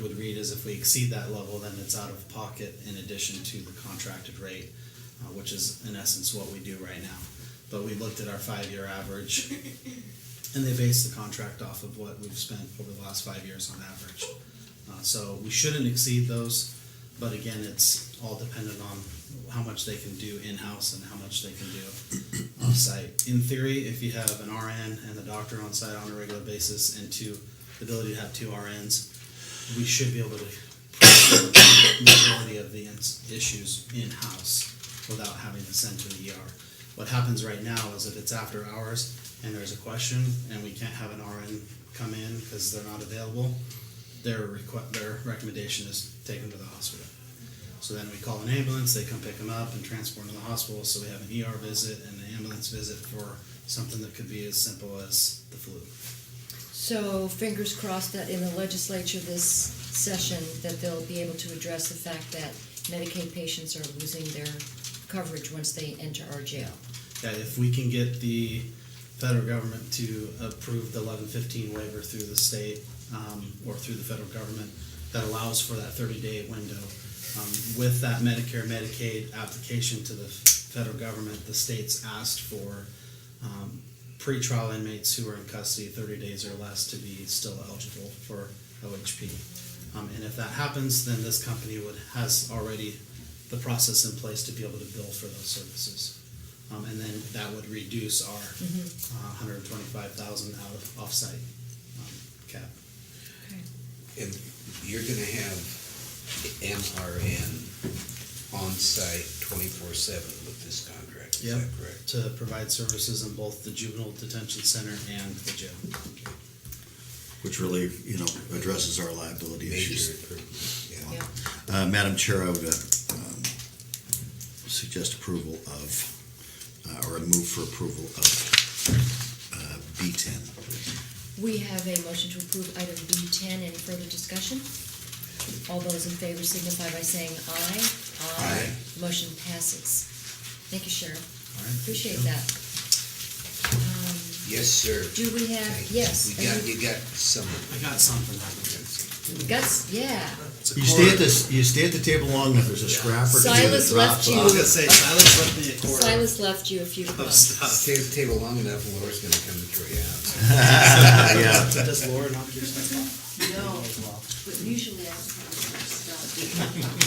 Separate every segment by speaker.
Speaker 1: would read is if we exceed that level, then it's out of pocket in addition to the contracted rate, uh, which is in essence what we do right now. But we looked at our five-year average, and they based the contract off of what we've spent over the last five years on average. Uh, so we shouldn't exceed those, but again, it's all dependent on how much they can do in-house and how much they can do off-site. In theory, if you have an RN and the doctor on site on a regular basis and two, the ability to have two RNs, we should be able to prevent the majority of the ins- issues in-house without having to send to the ER. What happens right now is if it's after hours and there's a question and we can't have an RN come in because they're not available, their requ- their recommendation is take them to the hospital. So then we call an ambulance, they come pick them up and transport them to the hospital, so we have an ER visit and an ambulance visit for something that could be as simple as the flu.
Speaker 2: So fingers crossed that in the legislature this session, that they'll be able to address the fact that Medicaid patients are losing their coverage once they enter our jail.
Speaker 1: that if we can get the federal government to approve the eleven fifteen waiver through the state um, or through the federal government that allows for that thirty day window. Um, with that Medicare Medicaid application to the federal government, the states asked for um, pretrial inmates who are in custody thirty days or less to be still eligible for OHP. Um, and if that happens, then this company would has already the process in place to be able to bill for those services. Um, and then that would reduce our
Speaker 2: Mm-hmm.
Speaker 1: uh, 125,000 out of offsite um, cap.
Speaker 3: And you're gonna have MRN on-site twenty-four seven with this contract, is that correct?
Speaker 1: To provide services in both the juvenile detention center and the jail.
Speaker 4: which really, you know, addresses our liability
Speaker 3: Major
Speaker 4: issues.
Speaker 3: improvement, yeah.
Speaker 2: Yeah,
Speaker 4: Uh, Madam Chair, I would uh, um, suggest approval of, uh, or a move for approval of uh, B ten.
Speaker 2: we have a motion to approve item B ten, any further discussion? All those in favor signify by saying aye. Motion passes. Thank you, Sheriff,
Speaker 1: All right?
Speaker 2: appreciate that. Um,
Speaker 3: Yes, sir.
Speaker 2: Do we have,
Speaker 3: Thank you.
Speaker 2: yes,
Speaker 3: We got, you got some of
Speaker 1: I got something. out of
Speaker 3: Uh.
Speaker 2: guts, yeah.
Speaker 1: it.
Speaker 4: You stay at this, you stay at the table long enough, there's a scrap or two that
Speaker 2: Silas left
Speaker 4: drops
Speaker 2: you.
Speaker 1: I was
Speaker 4: off.
Speaker 1: gonna say Silas left me a quarter
Speaker 2: Silas left you a few
Speaker 1: of
Speaker 2: crumbs.
Speaker 3: it.
Speaker 1: stuff.
Speaker 3: Stay at the table long enough, Laura's gonna come and throw you out.
Speaker 4: Yeah,
Speaker 1: Does Laura not give stuff?
Speaker 5: No,
Speaker 1: Well,
Speaker 5: but usually I have stuff. So, Thank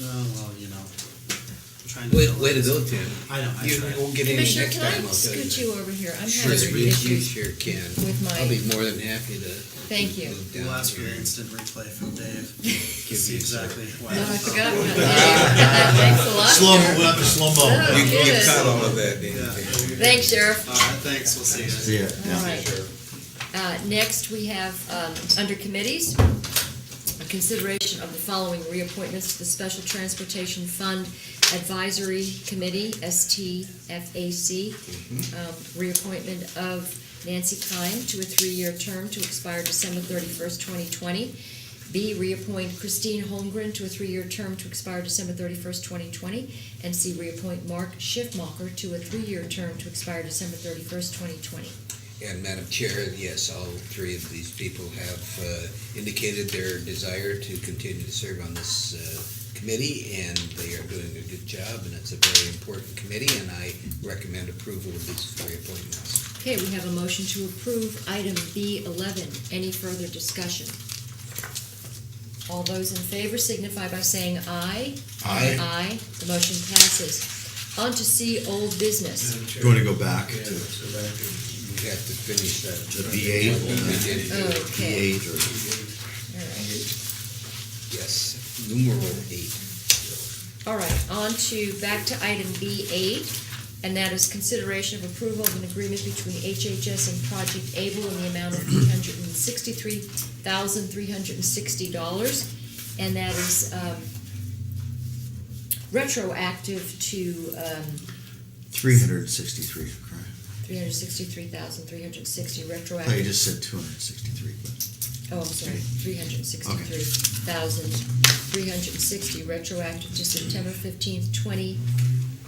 Speaker 1: Oh, well, you know. I'm trying to.
Speaker 3: Way,
Speaker 1: fill
Speaker 3: way to
Speaker 1: it.
Speaker 3: go, Tim.
Speaker 1: I know, I
Speaker 3: You
Speaker 1: tried.
Speaker 3: won't get any next
Speaker 2: Commissioner,
Speaker 3: time,
Speaker 2: can I
Speaker 3: I'll tell
Speaker 2: scoot
Speaker 3: you that.
Speaker 2: you over here? I'm
Speaker 3: Sure,
Speaker 2: having
Speaker 3: you,
Speaker 2: some
Speaker 3: you
Speaker 2: issues.
Speaker 3: sure can.
Speaker 2: with my-
Speaker 3: I'll be more than happy to.
Speaker 2: Thank you.
Speaker 3: move down
Speaker 1: We'll ask for
Speaker 3: here
Speaker 1: an
Speaker 3: and
Speaker 1: instant replay from Dave.
Speaker 3: give you
Speaker 1: See
Speaker 3: some-
Speaker 1: exactly why.
Speaker 2: No, I forgot about that. Thanks a lot.
Speaker 4: slow,
Speaker 2: Sheriff.
Speaker 4: we'll have to slow mo.
Speaker 2: Oh,
Speaker 3: You, you
Speaker 2: good.
Speaker 3: caught all of that, didn't
Speaker 1: Yeah.
Speaker 3: you?
Speaker 2: Thanks, Sheriff.
Speaker 1: All right, thanks. We'll see you guys.
Speaker 4: Yeah,
Speaker 2: All
Speaker 4: yeah.
Speaker 2: right. Uh, Next, we have, um, under committees, a consideration of the following reappointments to the Special Transportation Fund Advisory Committee, STFAC. Um, Reappointment of Nancy Kine to a three-year term to expire December thirty-first, twenty twenty. B, reappoint Christine Holmgren to a three-year term to expire December thirty-first, twenty twenty. And C, reappoint Mark Schiffmacher to a three-year term to expire December thirty-first, twenty twenty.
Speaker 3: And Madam Chair, yes, all three of these people have uh, indicated their desire to continue to serve on this uh, committee, and they are doing a good job, and it's a very important committee, and I recommend approval of these three appointments.
Speaker 2: Okay, we have a motion to approve item B eleven. Any further discussion? All those in favor signify by saying aye.
Speaker 4: Aye.
Speaker 2: Aye, the motion passes. On to C, old business.
Speaker 4: You wanna go back to
Speaker 3: We have to finish that.
Speaker 4: The VA?
Speaker 3: We did do.
Speaker 4: P
Speaker 2: Okay,
Speaker 4: eight or?
Speaker 2: all right.
Speaker 3: Yes, numeral eight.
Speaker 2: All right, on to, back to item B eight, and that is consideration of approval of an agreement between HHS and Project Able in the amount of three hundred and sixty-three thousand, three hundred and sixty dollars. And that is, um, retroactive to, um,
Speaker 4: Three hundred and sixty-three,
Speaker 2: three hundred and sixty-three thousand, three hundred and sixty
Speaker 4: I thought Oh, you
Speaker 2: retroactive.
Speaker 4: just said two hundred and sixty-three, but
Speaker 2: Oh, I'm sorry, three hundred and sixty-three thousand, three hundred and sixty retroactive to September fifteenth, twenty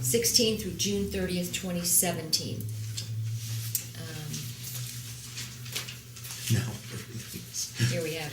Speaker 2: sixteen through June thirtieth, twenty seventeen. Um,
Speaker 4: no.
Speaker 2: Here we have